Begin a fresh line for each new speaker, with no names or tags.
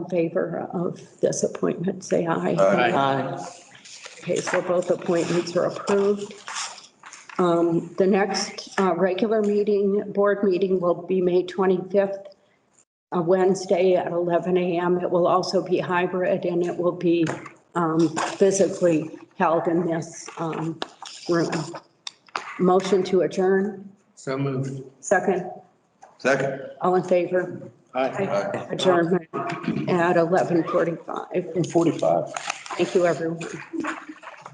in favor of this appointment, say aye.
Aye.
Aye.
Okay, so both appointments are approved. Um, The next uh, regular meeting, board meeting will be May 25th, uh, Wednesday at 11 a.m. It will also be hybrid and it will be um, physically held in this um, room. Motion to adjourn,
So moved.
second,
Second.
all in favor?
Aye.
Aye.
Adjournment at 11:45.
And forty-five.
Thank you, everyone.